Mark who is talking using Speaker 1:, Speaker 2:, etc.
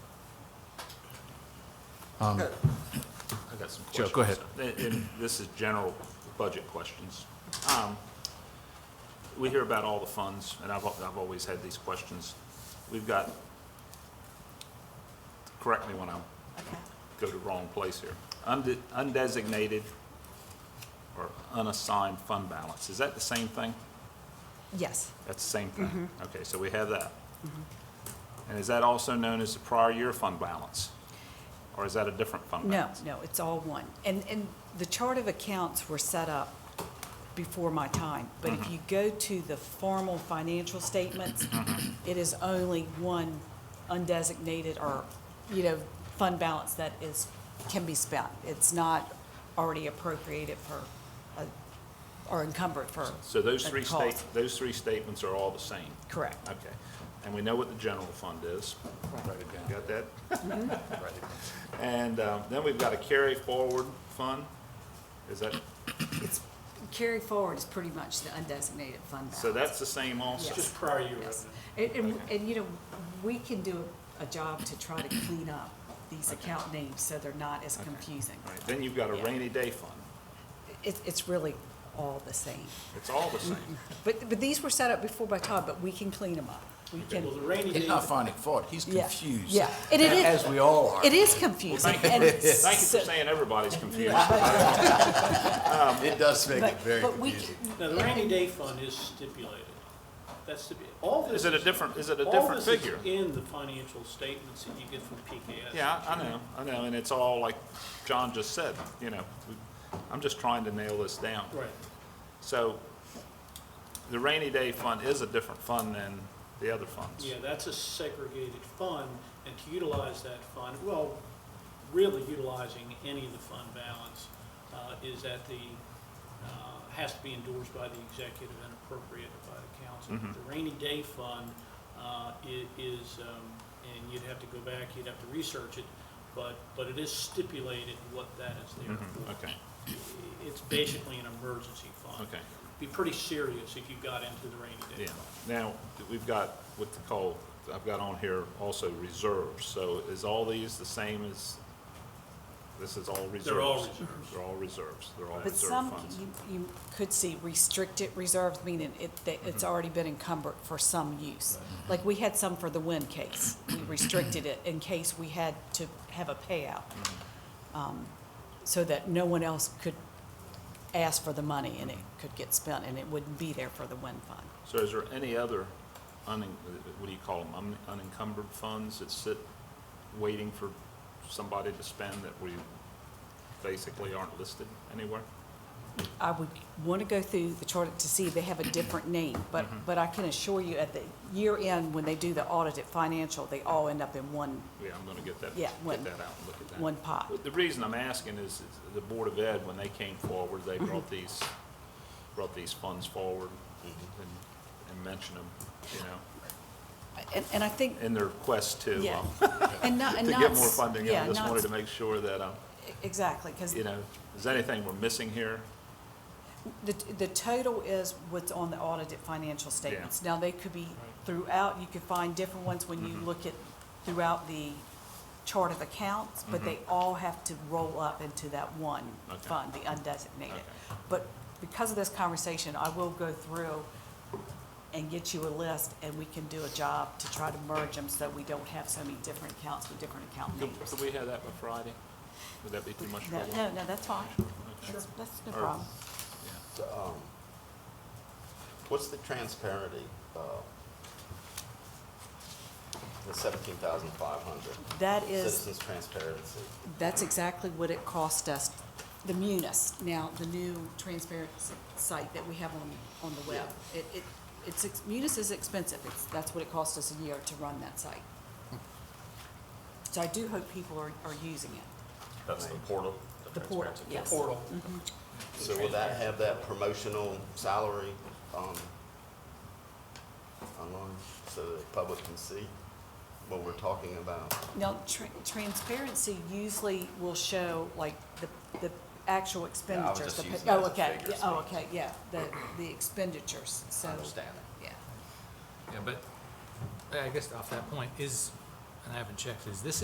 Speaker 1: I got some
Speaker 2: Joe,
Speaker 1: questions.
Speaker 2: go ahead.
Speaker 1: And- And this is general budget questions. Um, We hear about all the funds, and I've, al- I've always had these questions. We've got, correct me when I go to wrong place here, Unde- undesignated or unassigned fund balance, is that the same thing?
Speaker 3: Yes,
Speaker 1: That's the same thing? Okay, so we have that. And is that also known as the prior year fund balance? Or is that a different fund
Speaker 3: no,
Speaker 1: balance?
Speaker 3: no, it's all one. And, and the chart of accounts were set up before my time, but if you go to the formal financial statements, it is only one undesignated or, you know, fund balance that is, can be spent. It's not already appropriated for, uh, or encumbered for.
Speaker 1: So those
Speaker 3: a
Speaker 1: three
Speaker 3: cause.
Speaker 1: state, those three statements are all the same?
Speaker 3: Correct.
Speaker 1: Okay. And we know what the general fund is.
Speaker 3: Right.
Speaker 1: Write it down. Got that?
Speaker 3: Mm-hmm.
Speaker 1: Right. And um, then we've got a carry forward fund. Is that,
Speaker 3: Carry forward is pretty much the undesignated fund balance.
Speaker 1: so that's the same also?
Speaker 3: Yes.
Speaker 4: Just prior year
Speaker 3: Yes.
Speaker 4: revenue.
Speaker 3: And, and, and, you know, we can do a job to try to clean up these account names so they're not as confusing.
Speaker 1: All right, Then you've got a
Speaker 3: Yeah.
Speaker 1: rainy day fund.
Speaker 3: It, it's really all the same.
Speaker 1: It's all the same.
Speaker 3: But, but these were set up before by Todd, but we can clean them up. We can,
Speaker 4: Well, the rainy
Speaker 2: He's
Speaker 4: day,
Speaker 2: not finding fault, he's
Speaker 3: yeah,
Speaker 2: confused.
Speaker 3: yeah. And it is.
Speaker 2: As we all are.
Speaker 3: It is confusing.
Speaker 1: Thank you
Speaker 3: and
Speaker 1: for- thank you
Speaker 3: so-
Speaker 1: for saying everybody's confused.
Speaker 2: It does make
Speaker 3: But,
Speaker 2: it very
Speaker 3: but we,
Speaker 2: confusing.
Speaker 3: can-
Speaker 4: now, the rainy day fund is stipulated. That's to be, all this.
Speaker 1: Is it a different, is it a
Speaker 4: all
Speaker 1: different
Speaker 4: this is
Speaker 1: figure?
Speaker 4: in the financial statements that you get from PKS.
Speaker 1: Yeah, I I know, I know, and it's all like John just said, you know, we- I'm just trying to nail this down.
Speaker 4: Right.
Speaker 1: So the rainy day fund is a different fund than the other funds.
Speaker 4: Yeah, that's a segregated fund, and to utilize that fund, well, really utilizing any of the fund balance uh, is at the, uh, has to be endorsed by the executive and appropriated by the
Speaker 1: Mm-hmm.
Speaker 4: council. The rainy day fund uh, i- is, um, and you'd have to go back, you'd have to research it, but, but it is stipulated what that is there for.
Speaker 1: Mm-hmm, Okay,
Speaker 4: It's basically an emergency fund.
Speaker 1: okay,
Speaker 4: Be pretty serious if you got into the rainy day
Speaker 1: yeah.
Speaker 4: fund.
Speaker 1: Now, we've got what the call, I've got on here also reserves, so is all these the same as, this is all reserves?
Speaker 4: They're all reserves.
Speaker 1: They're all reserves, they're all
Speaker 3: but
Speaker 1: reserve
Speaker 3: some,
Speaker 1: funds.
Speaker 3: you, you could see restricted reserves, meaning it, that it's already been encumbered for some use. Like, we had some for the wind case. We restricted it in case we had to have a payout.
Speaker 1: Mm-hmm.
Speaker 3: um, So that no one else could ask for the money and it could get spent and it wouldn't be there for the wind fund.
Speaker 1: So is there any other, unen- what do you call them, unencumbered funds that sit waiting for somebody to spend that we basically aren't listed anywhere?
Speaker 3: I would want to go through the chart to see if they have a different name, but,
Speaker 1: Mm-hmm.
Speaker 3: but I can assure you at the year end, when they do the audit at financial, they all end up in one
Speaker 1: Yeah, I'm gonna get that,
Speaker 3: Yeah,
Speaker 1: get that out
Speaker 3: one-
Speaker 1: and look at that.
Speaker 3: one pot.
Speaker 1: But The reason I'm asking is, is the Board of Ed, when they came forward,
Speaker 3: Mm-hmm.
Speaker 1: they brought these, brought these funds forward and, and mentioned them, you know,
Speaker 3: And, and I think,
Speaker 1: in their quest to,
Speaker 3: yeah.
Speaker 1: um,
Speaker 3: And not,
Speaker 1: to
Speaker 3: and not.
Speaker 1: get more funding.
Speaker 3: yeah,
Speaker 1: I just
Speaker 3: not-
Speaker 1: wanted to make sure that, um,
Speaker 3: Exactly, because
Speaker 1: you know, is there anything we're missing here?
Speaker 3: the, the total is what's on the audited financial statements. Now, they could be throughout, you could find different ones when
Speaker 1: Mm-hmm.
Speaker 3: you look at throughout the chart of accounts, but they all have to roll up into that one
Speaker 1: Mm-hmm. Okay.
Speaker 3: fund, the undesignated.
Speaker 1: Okay.
Speaker 3: But because of this conversation, I will go through and get you a list, and we can do a job to try to merge them so we don't have so many different accounts with different account
Speaker 1: Could
Speaker 3: names.
Speaker 1: could we have that by Friday? Would that be too much
Speaker 3: No,
Speaker 1: trouble?
Speaker 3: no, no, that's fine.
Speaker 1: Okay.
Speaker 3: That's, that's no
Speaker 1: Or-
Speaker 3: problem.
Speaker 1: Yeah.
Speaker 5: um, What's the transparency, uh, the seventeen thousand five hundred?
Speaker 3: That is,
Speaker 5: Citizens transparency.
Speaker 3: that's exactly what it cost us, the Munis, now, the new transparent s- site that we have on, on the web. It, it, it's, ex- Munis is expensive, it's, that's what it cost us a year to run that site. So I do hope people are, are using it,
Speaker 6: That's the portal?
Speaker 3: the portal,
Speaker 6: transparency
Speaker 3: yes.
Speaker 4: Portal.
Speaker 5: So will that have that promotional salary, um, online, so the public can see what we're talking about?
Speaker 3: Now, tra- transparency usually will show like the, the actual
Speaker 5: Yeah, I was
Speaker 3: expenditures.
Speaker 5: just
Speaker 3: the pa-
Speaker 5: using it as
Speaker 3: Oh,
Speaker 5: a
Speaker 3: okay,
Speaker 5: figure,
Speaker 3: yeah, oh,
Speaker 5: so-
Speaker 3: okay, yeah, the, the expenditures, so.
Speaker 5: I understand it.
Speaker 3: Yeah.
Speaker 7: Yeah, but I guess off that point, is, and I haven't checked, is this